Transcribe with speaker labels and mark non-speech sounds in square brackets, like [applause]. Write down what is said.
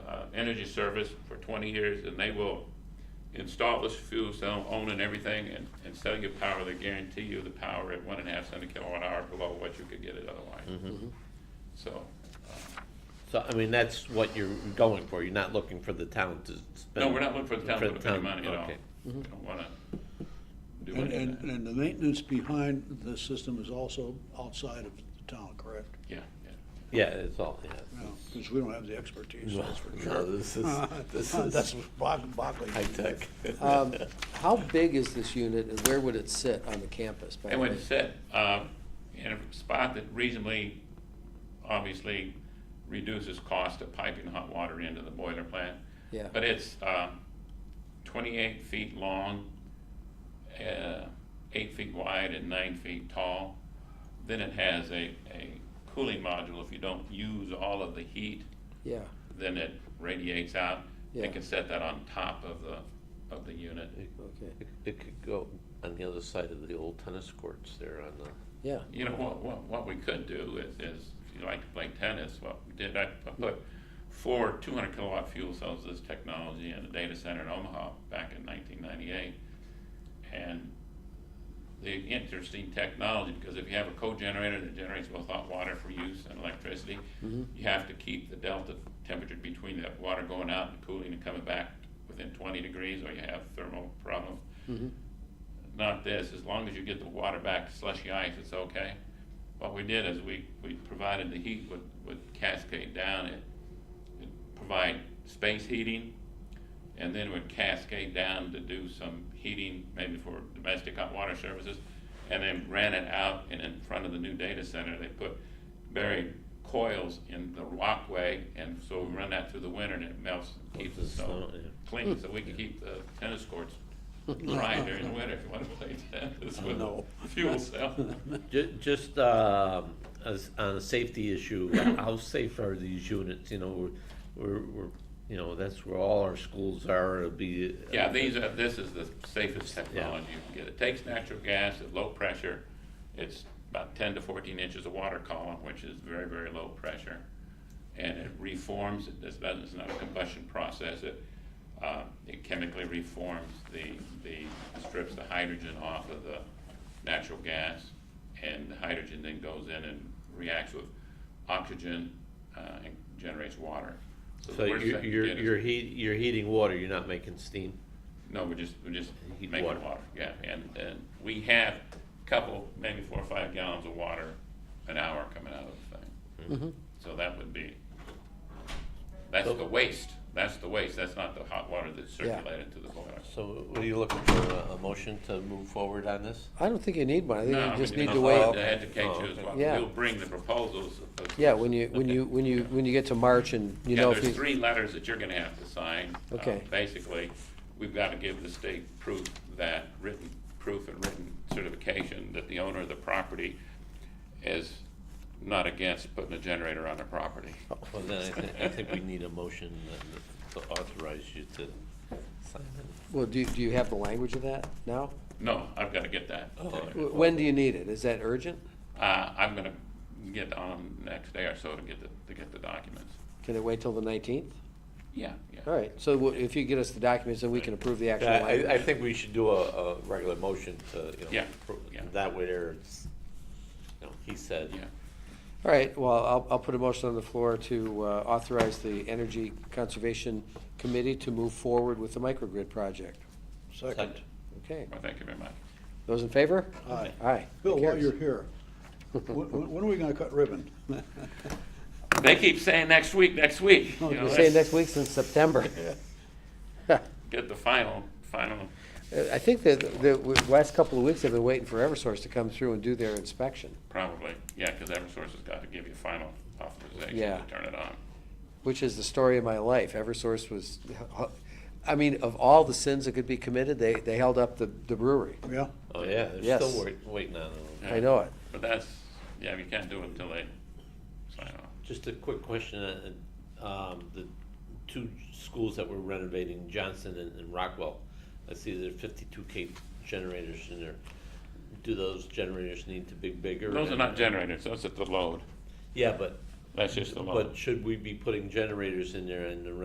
Speaker 1: uh, Energy Service for twenty years, and they will install this fuel cell, own and everything, and, and sell you power, they guarantee you the power at one and a half cent a kilowatt hour below what you could get it otherwise. So,
Speaker 2: So, I mean, that's what you're going for, you're not looking for the town to spend.
Speaker 1: no, we're not looking for the town to
Speaker 2: For
Speaker 1: put up any
Speaker 2: town,
Speaker 1: money at all.
Speaker 2: okay.
Speaker 1: We don't wanna do
Speaker 3: Mm-hmm. And,
Speaker 1: any of
Speaker 3: and,
Speaker 1: that.
Speaker 3: and the maintenance behind the system is also outside of the town, correct?
Speaker 1: Yeah, yeah.
Speaker 2: Yeah, it's all, yeah.
Speaker 3: Because we don't have the expertise, that's for
Speaker 2: No,
Speaker 3: sure.
Speaker 2: this is, [laughs] this
Speaker 3: [laughs] That's
Speaker 2: is
Speaker 3: Boc- Buckley.
Speaker 2: high tech. [laughs]
Speaker 4: Um, How big is this unit and where would it sit on the campus? by
Speaker 1: And
Speaker 4: the
Speaker 1: when
Speaker 4: way?
Speaker 1: it's set, uh, in a spot that reasonably, obviously reduces cost of piping hot water into the boiler plant.
Speaker 4: Yeah.
Speaker 1: But it's, um, twenty-eight feet long, uh, eight feet wide and nine feet tall. Then it has a, a cooling module, if you don't use all of the heat,
Speaker 4: Yeah,
Speaker 1: then it radiates out. They
Speaker 4: Yeah.
Speaker 1: can set that on top of the, of the unit.
Speaker 4: okay,
Speaker 2: It- It could go on the other side of the old tennis courts there on the,
Speaker 4: yeah,
Speaker 1: You know, what, what, what we could do is, is, if you like to play tennis, what we did, I I put four two hundred kilowatt fuel cells, this technology in a data center in Omaha back in nineteen ninety-eight. And the interesting technology, because if you have a co-generator that generates both hot water for use and electricity, you have to keep the delta temperature between that water going out and cooling and coming back within twenty degrees, or you have thermal problems not this, as long as you get the water back to slushy ice, it's okay. What we did is we, we provided the heat would, would cascade down, it, it provide space heating, and then would cascade down to do some heating, maybe for domestic hot water services, and then ran it out, and in front of the new data center, they put buried coils in the walkway, and so we run that through the winter, and it melts, and keeps
Speaker 2: the
Speaker 1: it so
Speaker 2: snow, yeah. Hmm.
Speaker 1: clean, so we can keep the tennis courts dry during the winter if you wanna play tennis with
Speaker 3: No.
Speaker 1: a fuel cell.
Speaker 2: ju- just, um, as, on a safety issue, [coughs] how safe are these units, you know, we're- we're, we're, you know, that's where all our schools are, it'll be.
Speaker 1: Yeah, these are, this is the safest technology you can get. It takes natural gas at low pressure. It's about ten to fourteen inches of water column, which is very, very low pressure. And it reforms, it does- doesn't, it's not a combustion process. It, uh, it chemically reforms the, the, strips the hydrogen off of the natural gas. And the hydrogen then goes in and reacts with oxygen, uh, and generates water.
Speaker 2: So
Speaker 1: the worst
Speaker 2: you're,
Speaker 1: that you
Speaker 2: you're,
Speaker 1: get is-
Speaker 2: you're heat, you're heating water, you're not making steam?
Speaker 1: no, we're just, we're just
Speaker 2: Heat
Speaker 1: making
Speaker 2: water.
Speaker 1: water, yeah, and, and we have a couple, maybe four or five gallons of water an hour coming out of the thing.
Speaker 4: Mm-hmm.
Speaker 1: So that would be, that's the waste, that's the waste, that's not the hot water that's
Speaker 4: Yeah.
Speaker 1: circulated to the boiler.
Speaker 2: So what are you looking for, a- a motion to move forward on this?
Speaker 4: I don't think you need one, I
Speaker 1: No,
Speaker 4: think
Speaker 1: I
Speaker 4: you just
Speaker 1: mean,
Speaker 4: need to
Speaker 1: it's
Speaker 2: all-
Speaker 4: wait.
Speaker 1: To educate
Speaker 2: Oh,
Speaker 1: you as
Speaker 2: okay.
Speaker 1: well,
Speaker 4: Yeah.
Speaker 1: we'll bring the proposals. of- of-
Speaker 4: Yeah, when you, when you, when you, when you get to March and you
Speaker 1: Yeah,
Speaker 4: know if
Speaker 1: there's
Speaker 4: you,
Speaker 1: three letters that you're gonna have to sign. Uh,
Speaker 4: Okay.
Speaker 1: Basically, we've gotta give the state proof that, written proof and written certification that the owner of the property is not against putting a generator on their property.
Speaker 4: Oh.
Speaker 2: Well, then I think, I think we need a motion to authorize you to sign it.
Speaker 4: well, do, do you have the language of that now?
Speaker 1: No, I've gotta get that.
Speaker 2: okay.
Speaker 4: W- When do you need it? Is that urgent?
Speaker 1: Uh, I'm gonna get on next day or so to get the, to get the documents.
Speaker 4: Can it wait till the nineteenth?
Speaker 1: Yeah, yeah.
Speaker 4: All right, so w- if you get us the documents, then we can approve the actual
Speaker 2: I, I
Speaker 4: language.
Speaker 2: think we should do a, a regular motion to, you know.
Speaker 1: Yeah,
Speaker 2: pro-
Speaker 1: yeah.
Speaker 2: That way there, it's, you know, he said.
Speaker 1: Yeah,
Speaker 4: All right, well, I'll, I'll put a motion on the floor to uh, authorize the Energy Conservation Committee to move forward with the microgrid project.
Speaker 3: Second.
Speaker 4: Okay,
Speaker 1: well, thank you very much.
Speaker 4: those in favor?
Speaker 3: Aye.
Speaker 4: Aye.
Speaker 3: Bill, while
Speaker 4: Carries.
Speaker 3: you're here, when, when- when are we gonna cut ribbon? [laughs]
Speaker 1: They keep saying next week, next week. you know,
Speaker 4: We're saying
Speaker 1: let's
Speaker 4: next week since September. [laughs] Uh,
Speaker 1: Get the final, final
Speaker 4: I think that the w- last couple of weeks, they've been waiting for Eversource to come through and do their inspection,
Speaker 1: Probably, yeah, because Eversource has got to give you final authorization
Speaker 4: Yeah.
Speaker 1: to turn it on.
Speaker 4: which is the story of my life. Eversource was, I mean, of all the sins that could be committed, they, they held up the the brewery.
Speaker 3: Yeah,
Speaker 2: Oh, yeah, they're
Speaker 4: Yes.
Speaker 2: still wait- waiting on it.
Speaker 4: I know it.
Speaker 1: But that's, yeah, you can't do it until they sign off.
Speaker 2: Just a quick question, uh, um, the two schools that we're renovating, Johnson and, and Rockwell, I see there are fifty-two K generators in there. Do those generators need to be bigger?
Speaker 1: Those are not generators, those are the load.
Speaker 2: Yeah, but,
Speaker 1: That's just the load.
Speaker 2: but should we be putting generators in there and the